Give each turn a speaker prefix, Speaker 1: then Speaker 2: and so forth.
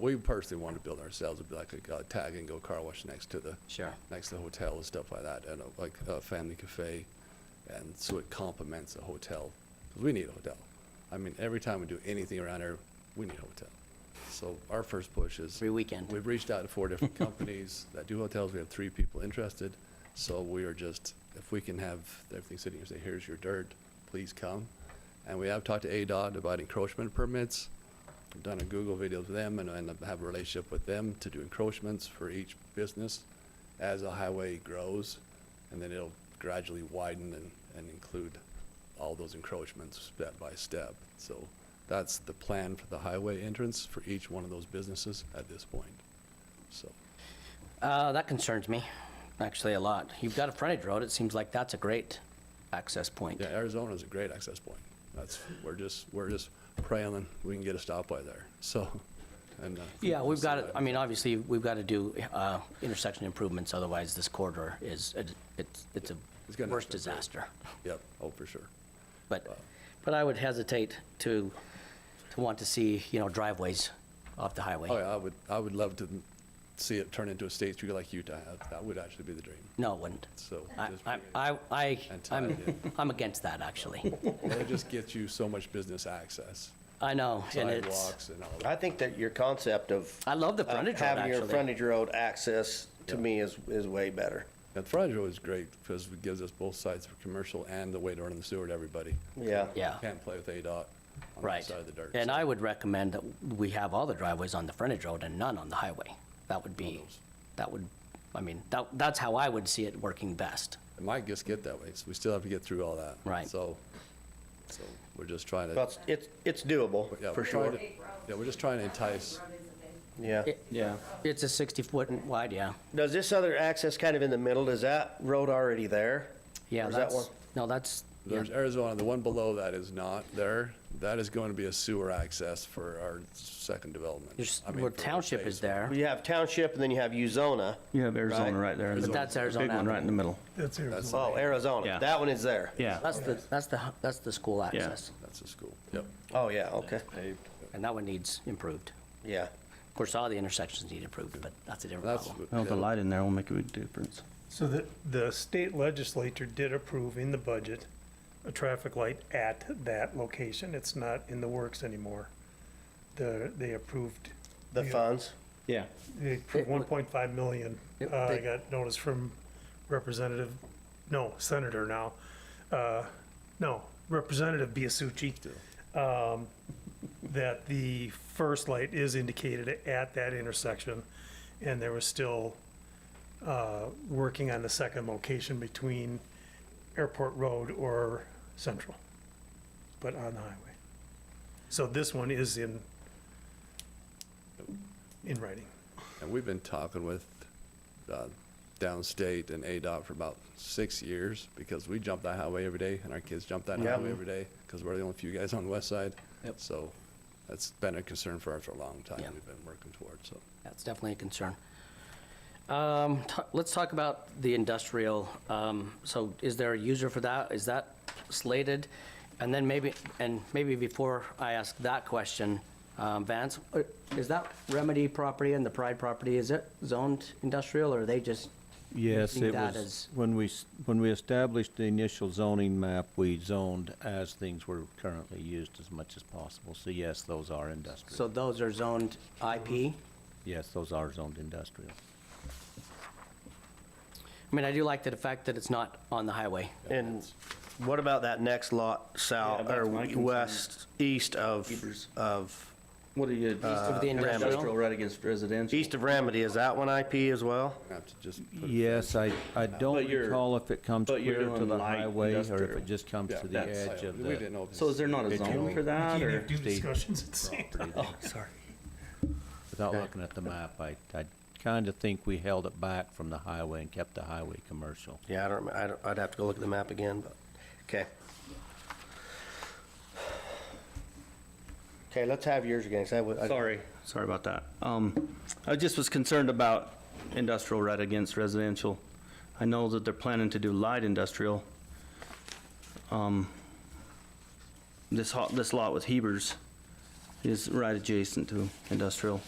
Speaker 1: We personally wanted to build ourselves, it'd be like a uh, tag and go car wash next to the.
Speaker 2: Sure.
Speaker 1: Next to the hotel and stuff like that, and uh, like a family cafe, and so it complements a hotel, 'cause we need a hotel. I mean, every time we do anything around here, we need a hotel. So our first push is.
Speaker 2: Every weekend.
Speaker 1: We've reached out to four different companies that do hotels, we have three people interested, so we are just, if we can have everything sitting here, say, here's your dirt, please come. And we have talked to ADOT about encroachment permits, I've done a Google video with them and, and have a relationship with them to do encroachments for each business as a highway grows, and then it'll gradually widen and, and include all those encroachments step by step. So that's the plan for the highway entrance for each one of those businesses at this point. So,
Speaker 2: Uh, that concerns me, actually, a lot. You've got a frontage road, it seems like that's a great access point.
Speaker 1: yeah, Arizona's a great access point. That's, we're just, we're just praying we can get a stoplight there, so, and. uh,
Speaker 2: Yeah, we've got, to I mean, obviously, we've got to do uh, intersection improvements, otherwise this corridor is, it's, it's
Speaker 1: It's
Speaker 2: a
Speaker 1: gonna-
Speaker 2: worse disaster.
Speaker 1: Yep, oh, for sure.
Speaker 2: But, but I would hesitate to, to want to see, you know, driveways off the highway.
Speaker 1: Oh, yeah, I would, I would love to see it turn into a state street like Utah. That- That would actually be the dream,
Speaker 2: No, it wouldn't.
Speaker 1: so.
Speaker 2: I,
Speaker 1: just-
Speaker 2: I- I, I,
Speaker 1: Anti-
Speaker 2: I'm, I'm against that, actually.
Speaker 1: It just gets you so much business access,
Speaker 2: I know, and it's,
Speaker 1: sidewalks and all that.
Speaker 3: I think that your concept of.
Speaker 2: I love the
Speaker 3: of
Speaker 2: frontage road,
Speaker 3: Uh, Having your
Speaker 2: actually.
Speaker 3: frontage road access, to me, is, is way better.
Speaker 1: Now, the frontage road is great because it gives us both sides for commercial and the way to run the sewer to everybody.
Speaker 3: Yeah.
Speaker 2: yeah.
Speaker 1: Can't play with ADOT on the
Speaker 2: Right.
Speaker 1: side of the dirt.
Speaker 2: And
Speaker 1: so
Speaker 2: I would recommend that we have all the driveways on the frontage road and none on the highway. That would be,
Speaker 1: those.
Speaker 2: that would, I mean, that, that's how I would see it working best.
Speaker 1: It might just get that way, so we still have to get through all that.
Speaker 2: Right.
Speaker 1: So, so we're just trying to.
Speaker 3: But it's, it's doable,
Speaker 1: yeah,
Speaker 3: for
Speaker 1: we're trying
Speaker 3: sure.
Speaker 1: to- Yeah, we're just trying to entice,
Speaker 3: Yeah.
Speaker 2: It-
Speaker 4: Yeah.
Speaker 2: It's a 60-foot wide, yeah.
Speaker 3: Does this other access kind of in the middle, is that road already there?
Speaker 2: Yeah,
Speaker 3: Or is that
Speaker 2: that's, no, that's, yeah,
Speaker 1: there's Arizona, the one below that is not there. That is going to be a sewer access for our second development.
Speaker 2: there's,
Speaker 1: I mean,
Speaker 2: where
Speaker 1: for
Speaker 2: township is
Speaker 1: phase
Speaker 2: there,
Speaker 3: You have township and then you have Uzona.
Speaker 4: You have Arizona right there. in the-
Speaker 2: but that's
Speaker 4: Big one right in
Speaker 2: Arizona.
Speaker 4: the middle.
Speaker 5: That's Arizona.
Speaker 1: That's,
Speaker 3: Oh, Arizona.
Speaker 4: Yeah.
Speaker 3: That one is there.
Speaker 4: Yeah.
Speaker 2: That's the, that's the, that's the school access,
Speaker 1: that's the school, yep.
Speaker 3: Oh, yeah, okay.
Speaker 2: and that one needs improved.
Speaker 3: Yeah.
Speaker 2: Of course, all the intersections need improved, but that's a different
Speaker 1: That's,
Speaker 2: problem.
Speaker 4: Well, the light in there will make a big difference.
Speaker 5: So the, the state legislature did approve in the budget a traffic light at that location. It's not in the works anymore. The, they approved,
Speaker 3: The
Speaker 5: Yeah.
Speaker 3: funds.
Speaker 4: Yeah.
Speaker 5: they
Speaker 2: It
Speaker 5: approved
Speaker 2: wa-
Speaker 5: one point five million.
Speaker 2: It-
Speaker 5: Uh, I
Speaker 2: they-
Speaker 5: got notice from Representative, no, Senator now, uh, no, Representative Biasucci. Um, that the first light is indicated at that intersection and there was still uh, working on the second location between Airport Road or Central, but on the highway. So this one is in, in writing.
Speaker 1: And we've been talking with uh, downstate and ADOT for about six years because we jump that highway every day and our kids jump that
Speaker 3: Yeah.
Speaker 1: highway every day because we're the only few guys on the west side.
Speaker 2: Yep.
Speaker 1: So that's been a concern for us for a long time.
Speaker 2: Yeah.
Speaker 1: We've been working towards, so.
Speaker 2: That's definitely a concern. Um, t- Let's talk about the industrial. Um, So is there a user for that? Is that slated? And then maybe, and maybe before I ask that question, um, Vance, uh, is that Remedy property and the Pride property, is it zoned industrial or are they just?
Speaker 6: Yes,
Speaker 2: using
Speaker 6: it
Speaker 2: that
Speaker 6: was,
Speaker 2: as-
Speaker 6: when we, s- when we established the initial zoning map, we zoned as things were currently used as much as possible. So yes, those are
Speaker 2: So
Speaker 6: industrial.
Speaker 2: those are zoned IP?
Speaker 6: Yes, those are zoned industrial.
Speaker 2: I mean, I do like the fact that it's not on the highway.
Speaker 3: And what about that next lot south,
Speaker 4: Yeah, that's
Speaker 3: or
Speaker 4: my concern.
Speaker 3: west, east of,
Speaker 4: Hebrews.
Speaker 3: of,
Speaker 4: What are you? East
Speaker 2: of the industrial?
Speaker 4: Right against residential.
Speaker 3: east of Remedy? Is that one IP as well?
Speaker 1: we have to just put it-
Speaker 6: Yes, I, I don't
Speaker 4: But you're-
Speaker 6: recall if it comes
Speaker 4: but you're
Speaker 6: clear to
Speaker 4: doing
Speaker 6: the
Speaker 4: light
Speaker 6: highway or if
Speaker 4: industrial.
Speaker 6: it just comes
Speaker 1: Yeah,
Speaker 6: to the
Speaker 1: that's-
Speaker 6: edge of
Speaker 1: We didn't
Speaker 6: the.
Speaker 1: know. if
Speaker 4: So is
Speaker 1: it's-
Speaker 4: there not a
Speaker 6: It
Speaker 4: zone
Speaker 6: can-
Speaker 4: for that
Speaker 5: You
Speaker 4: or? Oh,
Speaker 5: can't have two
Speaker 6: Steve.
Speaker 5: discussions at the same time.
Speaker 6: property.
Speaker 2: Sorry.
Speaker 6: Without looking at the map, I, I kind of think we held it back from the highway and kept the highway commercial.
Speaker 3: Yeah, I don't, I don't, I'd have to go look at the map again, but, okay. Okay, let's have yours again, 'cause I would. I-
Speaker 4: Sorry, sorry about that. Um, I just was concerned about industrial right against residential. I know that they're planning to do light industrial. Um, This hot, this lot with Hebers is right adjacent to industrial.